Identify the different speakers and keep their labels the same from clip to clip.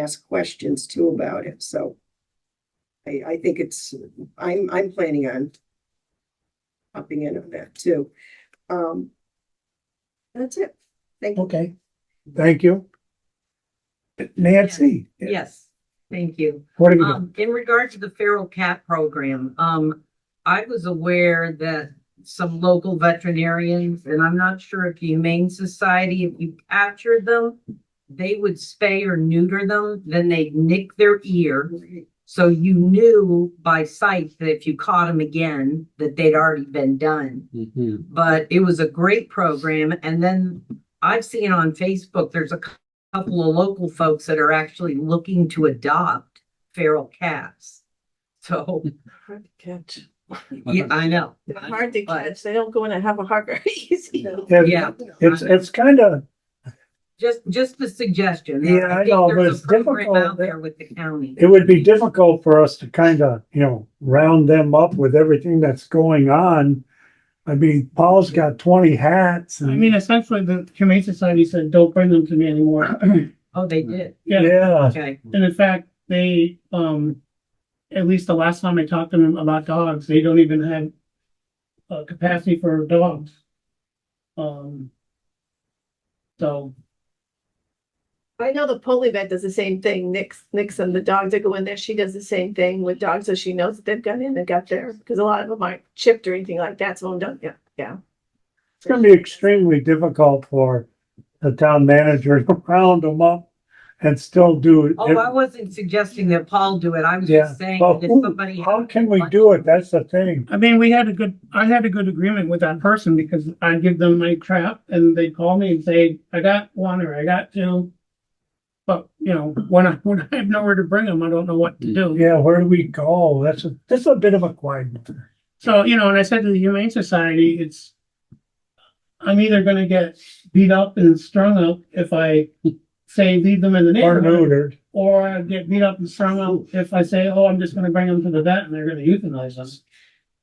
Speaker 1: ask questions too about it, so. I, I think it's, I'm, I'm planning on popping in on that too. Um, that's it. Thank you.
Speaker 2: Okay, thank you. Nancy?
Speaker 3: Yes, thank you.
Speaker 2: What are you, doing?
Speaker 3: Um, in regard to the feral cat program, um, I was aware that some local veterinarians, and I'm not sure if the Humane Society, if you captured them, they would spay or neuter them, then they'd nick their ear. So you knew by sight that if you caught them again, that they'd already been done. But it was a great program. And then I've seen on Facebook, there's a cou- couple of local folks that are actually looking to adopt feral cats. So,
Speaker 4: Hard to catch.
Speaker 3: yeah, I know.
Speaker 4: They're hard to
Speaker 3: But-
Speaker 4: catch. They don't go in and have a heart very easy.
Speaker 3: Yeah.
Speaker 2: It's, it's kind of,
Speaker 3: Just, just a suggestion.
Speaker 2: Yeah, I
Speaker 3: think
Speaker 2: know, but
Speaker 3: there's a
Speaker 2: it's
Speaker 3: program
Speaker 2: difficult.
Speaker 3: Out there with the county.
Speaker 2: it would be difficult for us to kind of, you know, round them up with everything that's going on. I mean, Paul's got twenty hats
Speaker 5: I
Speaker 2: and,
Speaker 5: mean, essentially, the Humane Society said, don't bring them to me anymore.
Speaker 3: Oh, they did.
Speaker 5: Yeah,
Speaker 2: yeah,
Speaker 3: Okay.
Speaker 5: and in fact, they, um, at least the last time I talked to them about dogs, they don't even have uh, capacity for dogs. Um, so,
Speaker 4: I know the poly vet does the same thing. Nix, Nixon, the dogs that go in there, she does the same thing with dogs. So she knows that they've gone in and got there because a lot of them aren't chipped or anything like that. So I'm done. Yeah, yeah.
Speaker 2: it's gonna be extremely difficult for the town manager to round them up and still do it.
Speaker 3: Oh, I wasn't suggesting that Paul do it. I was
Speaker 2: Yeah,
Speaker 3: just saying
Speaker 2: but
Speaker 3: that if
Speaker 2: who,
Speaker 3: somebody.
Speaker 2: how can we do it? That's the thing.
Speaker 5: I mean, we had a good, I had a good agreement with that person because I give them my crap and they call me and say, I got one or I got two. But, you know, when I, when I have nowhere to bring them, I don't know what to do.
Speaker 2: Yeah, where do we go? That's a, that's a bit of a quagmire.
Speaker 5: So, you know, and I said to the Humane Society, it's, I'm either gonna get beat up and strung up if I say leave them in the
Speaker 2: Or
Speaker 5: neighborhood.
Speaker 2: neutered.
Speaker 5: Or I get beat up and strung up if I say, oh, I'm just gonna bring them to the vet and they're gonna euthanize them.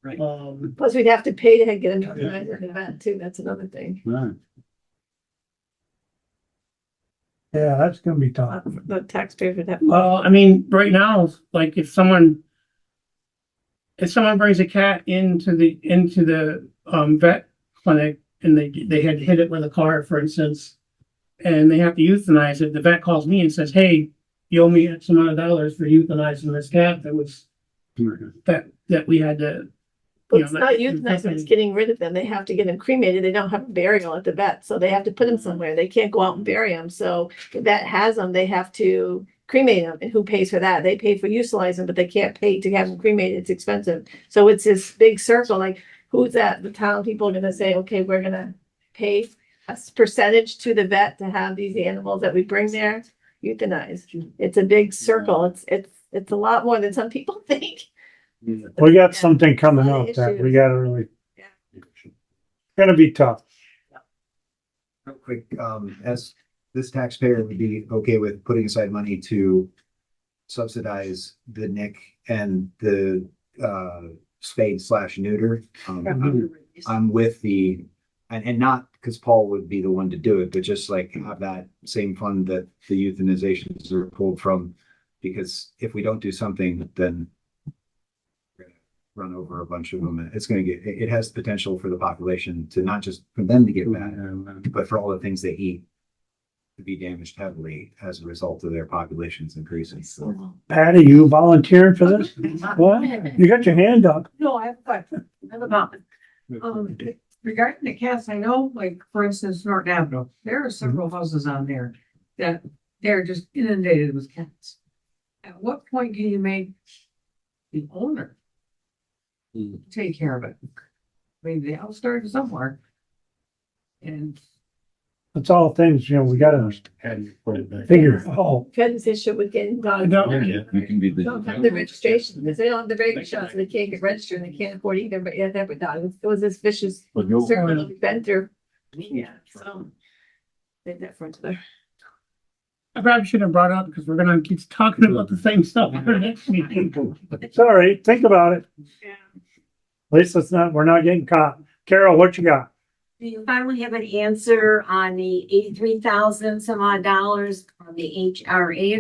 Speaker 3: Right.
Speaker 5: Um,
Speaker 4: Plus, we'd have to pay to get another vet in the vet too. That's another thing.
Speaker 2: Yeah, that's gonna be tough.
Speaker 4: The taxpayers would have.
Speaker 2: uh,
Speaker 5: well, I mean, right now, like if someone, if someone brings a cat into the, into the, um, vet clinic and they, they had hit it with a car, for instance, and they have to euthanize it, the vet calls me and says, hey, you owe me X amount of dollars for euthanizing this cat that was, that, that we had to,
Speaker 4: But
Speaker 5: you
Speaker 4: it's
Speaker 5: know,
Speaker 4: not
Speaker 5: that-
Speaker 4: euthanizing, it's
Speaker 5: Mhm.
Speaker 4: getting rid of them. They have to get them cremated. They don't have a burial at the vet, so they have to
Speaker 6: Mm-hmm.
Speaker 4: put them somewhere. They can't go out and bury them. So if that has them, they have to cremate them. And who pays for that? They pay for euthanizing, but they can't pay to have them cremated. It's expensive. So it's this big circle, like who's that? The town people are gonna say, okay, we're gonna pay a s- percentage to the vet to have these animals that we bring there
Speaker 6: Mm-hmm.
Speaker 4: euthanized. It's a big circle. It's, it's, it's a lot more than some people think.
Speaker 2: We got something coming
Speaker 4: Lot of
Speaker 2: up that we
Speaker 4: issues.
Speaker 2: gotta really,
Speaker 4: Yeah.
Speaker 2: gonna be tough.
Speaker 7: Real quick, um, as this taxpayer would be okay with putting aside money to subsidize the Nick and the, uh, spade slash neuter. Um,
Speaker 1: Mm-hmm.
Speaker 7: I'm- I'm with the, and, and not because Paul would be the one to do it, but just like have that same fund that the euthanizations are pulled from. Because if we don't do something, then we're gonna run over a bunch of them. It's gonna get, it, it has potential for the population to not just for them to get mad, but for all the things they eat to be damaged heavily as a result of their populations increasing. So
Speaker 2: Patty, you volunteering for this? What? You got your hand up.
Speaker 6: No, I have a question. I have a comment. Um, regarding the cats, I know, like, for instance, Norton Avenue, there are several houses on there that they're just inundated with cats. At what point can you make the owner take care of it? I mean, they all started somewhere. And
Speaker 2: It's all things, you know, we gotta figure out.
Speaker 4: We've had this issue with getting
Speaker 5: I
Speaker 4: dogs.
Speaker 5: don't,
Speaker 4: Don't have the registration, because they don't have the registration, so they can't get registered, and they can't afford either, but yeah, that would die. It was this vicious circle that we've been through. Yeah, so. Did that for another.
Speaker 5: I probably should have brought it up because we're gonna keep talking about the same stuff for the next meeting.
Speaker 2: Sorry, think about it.
Speaker 4: Yeah.
Speaker 2: At least it's not, we're not getting caught. Carol, what you got?
Speaker 8: Do you finally have an answer on the eighty-three thousand some odd dollars on the HRA